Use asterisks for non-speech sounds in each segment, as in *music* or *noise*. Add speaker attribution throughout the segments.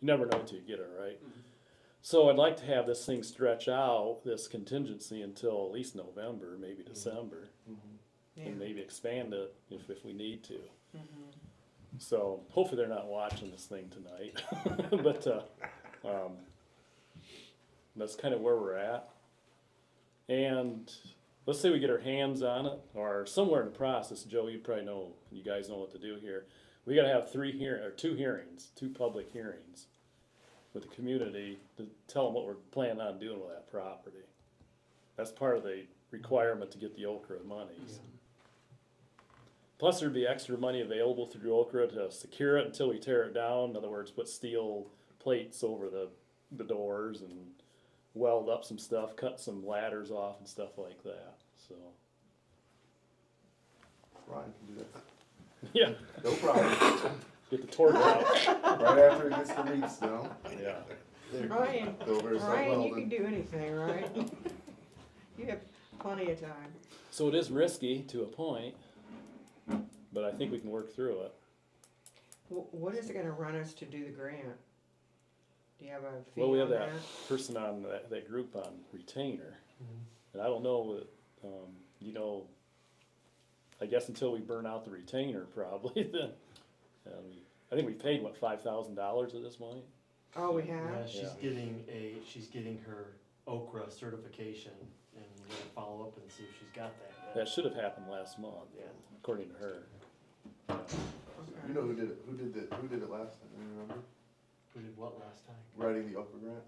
Speaker 1: never know until you get it, right? So I'd like to have this thing stretch out, this contingency until at least November, maybe December, and maybe expand it if, if we need to. So hopefully they're not watching this thing tonight, *laughs* but, uh, um, that's kind of where we're at. And let's say we get our hands on it, or somewhere in the process, Joe, you probably know, you guys know what to do here. We gotta have three hear, or two hearings, two public hearings with the community to tell them what we're planning on doing with that property. That's part of the requirement to get the Okra monies. Plus, there'd be extra money available through Okra to secure it until we tear it down, in other words, put steel plates over the, the doors and weld up some stuff, cut some ladders off and stuff like that, so, *laughs*
Speaker 2: Ryan can do that.
Speaker 1: yeah,
Speaker 2: No problem.
Speaker 1: get the torque out,
Speaker 2: Right after it gets the meat snow.
Speaker 1: yeah.
Speaker 3: Ryan,
Speaker 2: Go over to St.
Speaker 3: Ryan, you can
Speaker 2: Weldon.
Speaker 3: do anything, right? You have plenty of time.
Speaker 1: So it is risky to a point, but I think we can work through it.
Speaker 3: Wh- What is it gonna run us to do the grant? Do you have a fee
Speaker 1: Well, we
Speaker 3: on
Speaker 1: have
Speaker 3: that?
Speaker 1: that person on that, that group on retainer, and I don't know, uh, um, you know, I guess until we burn out the retainer probably, *laughs* then, um, I think we paid, what, five thousand dollars at this point?
Speaker 3: Oh, we
Speaker 4: Yeah,
Speaker 3: have?
Speaker 4: she's
Speaker 1: Yeah.
Speaker 4: getting a, she's getting her Okra certification, and we're gonna follow up and see if she's got that
Speaker 1: That
Speaker 4: yet.
Speaker 1: should have happened last month,
Speaker 4: Yeah.
Speaker 1: according to her.
Speaker 3: Okay.
Speaker 2: You know who did it, who did the, who did it last time, you remember?
Speaker 4: Who did what last time?
Speaker 2: Writing the Oprah grant?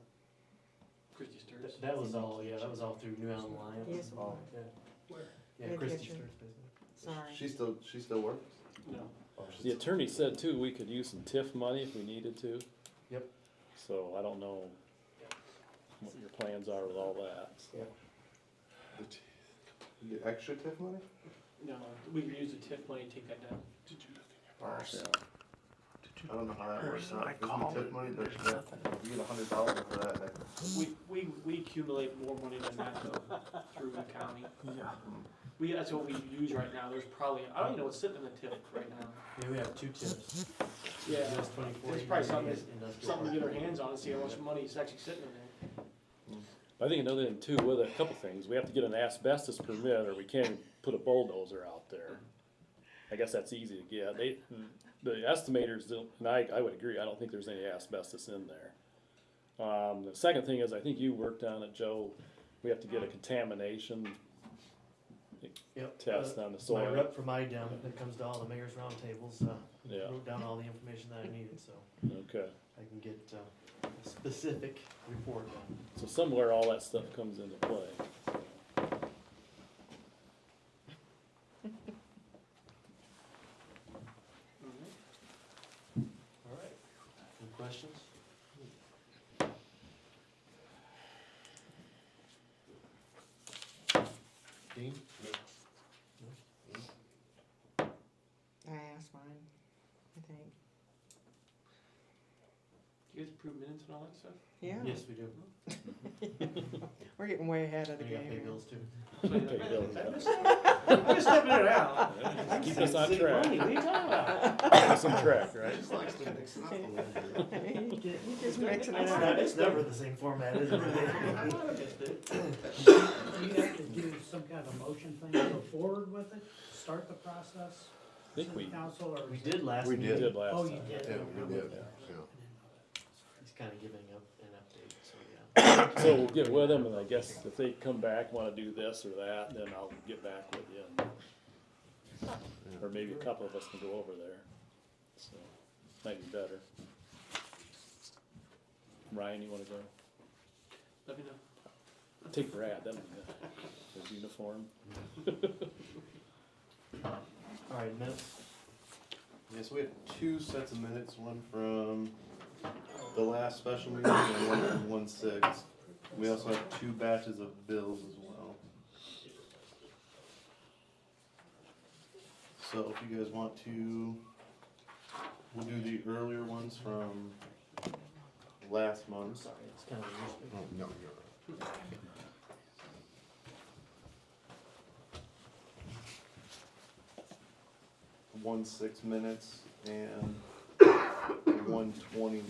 Speaker 5: Christie Sturz.
Speaker 4: Th- That was all, yeah, that was all through New Allen Alliance.
Speaker 3: Yes, it was.
Speaker 4: Yeah.
Speaker 5: Where?
Speaker 4: Yeah,
Speaker 3: Yeah,
Speaker 4: Christie
Speaker 3: Jim.
Speaker 4: Sturz business.
Speaker 3: Sorry.
Speaker 2: She still, she still works?
Speaker 5: No.
Speaker 4: Oh, she's-
Speaker 1: The attorney said too, we could use some TIF money if we needed to.
Speaker 4: Yep.
Speaker 1: So I don't know what your plans are with all that, so.
Speaker 2: You get extra TIF money?
Speaker 5: No, we can use the TIF money to take that down.
Speaker 2: Yeah. I don't know how that works out. Isn't TIF money, there's, you get a hundred dollars for that, that
Speaker 5: We, we, we accumulate more money than that though, through the county.
Speaker 1: Yeah.
Speaker 5: We, that's what we use right now, there's probably, I don't even know what's sitting in the TIF right now.
Speaker 4: Yeah, we have two tips.
Speaker 5: Yeah.
Speaker 4: US twenty-four.
Speaker 5: There's probably something-
Speaker 4: industrial
Speaker 5: Something to get our
Speaker 4: park.
Speaker 5: hands on and see how much money is actually sitting in there.
Speaker 1: I think another thing too, with a couple things, we have to get an asbestos permit or we can't put a bulldozer out there. I guess that's easy to get. They, the estimators don't, and I, I would agree, I don't think there's any asbestos in there. Um, the second thing is, I think you worked on it, Joe, we have to get a contamination
Speaker 4: Yep,
Speaker 1: test
Speaker 4: uh,
Speaker 1: on the
Speaker 4: My
Speaker 1: soil.
Speaker 4: rep from IDEM that comes to all the mayor's roundtables, uh,
Speaker 1: Yeah.
Speaker 4: wrote down all the information that I needed, so
Speaker 1: Okay,
Speaker 4: I can get, uh, a specific report on.
Speaker 1: so somewhere all that stuff comes into
Speaker 6: *laughs*
Speaker 1: play.
Speaker 5: Mm-hmm.
Speaker 4: All right, any questions? Dean?
Speaker 3: I asked mine, I think.
Speaker 5: Do you guys approve minutes and all that *laughs* stuff?
Speaker 3: Yeah,
Speaker 4: Yes, we do.
Speaker 3: we're getting way ahead of the
Speaker 4: We gotta pay
Speaker 3: game.
Speaker 4: bills too.
Speaker 1: Okay, Bill, yeah.
Speaker 5: *laughs* I'm just stepping it
Speaker 1: *laughs*
Speaker 5: out.
Speaker 1: Keep us on track, keep
Speaker 4: *laughs*
Speaker 5: Money, what are you talking about?
Speaker 1: us on track, right?
Speaker 2: Just likes to mix it up a little bit.
Speaker 3: here. *laughs* You get- you just mixing it
Speaker 4: It's not-
Speaker 3: up.
Speaker 4: It's never the same format,
Speaker 1: *laughs*
Speaker 4: is
Speaker 5: I
Speaker 4: it?
Speaker 5: might have missed it.
Speaker 6: Do you have to do some kind of motion thing, to go forward with it, start the process?
Speaker 1: I think we
Speaker 6: City Council or?
Speaker 4: We did last
Speaker 2: We
Speaker 1: we
Speaker 4: meeting.
Speaker 1: did
Speaker 6: Oh,
Speaker 1: last
Speaker 6: you
Speaker 1: time.
Speaker 6: did.
Speaker 2: Yeah, we did, yeah.
Speaker 4: He's kinda giving up an update, so
Speaker 1: *coughs*
Speaker 4: yeah.
Speaker 1: So we'll get with them, and I guess if they come back, wanna do this or that, then I'll get back with you. and- Or maybe a couple of us can go over there, so, might be better. Ryan, you wanna go?
Speaker 5: Let me know.
Speaker 1: Take Brad, that'd be good, his uniform.
Speaker 4: All right, minutes,
Speaker 2: Yeah, so we have two sets of minutes, one from the last special meeting and one from one six. We also have two batches of bills as well. So if you guys want to, we'll do the earlier ones from last
Speaker 4: I'm
Speaker 2: month.
Speaker 4: sorry, it's kinda. loose.
Speaker 2: no, you're. One six minutes and one twenty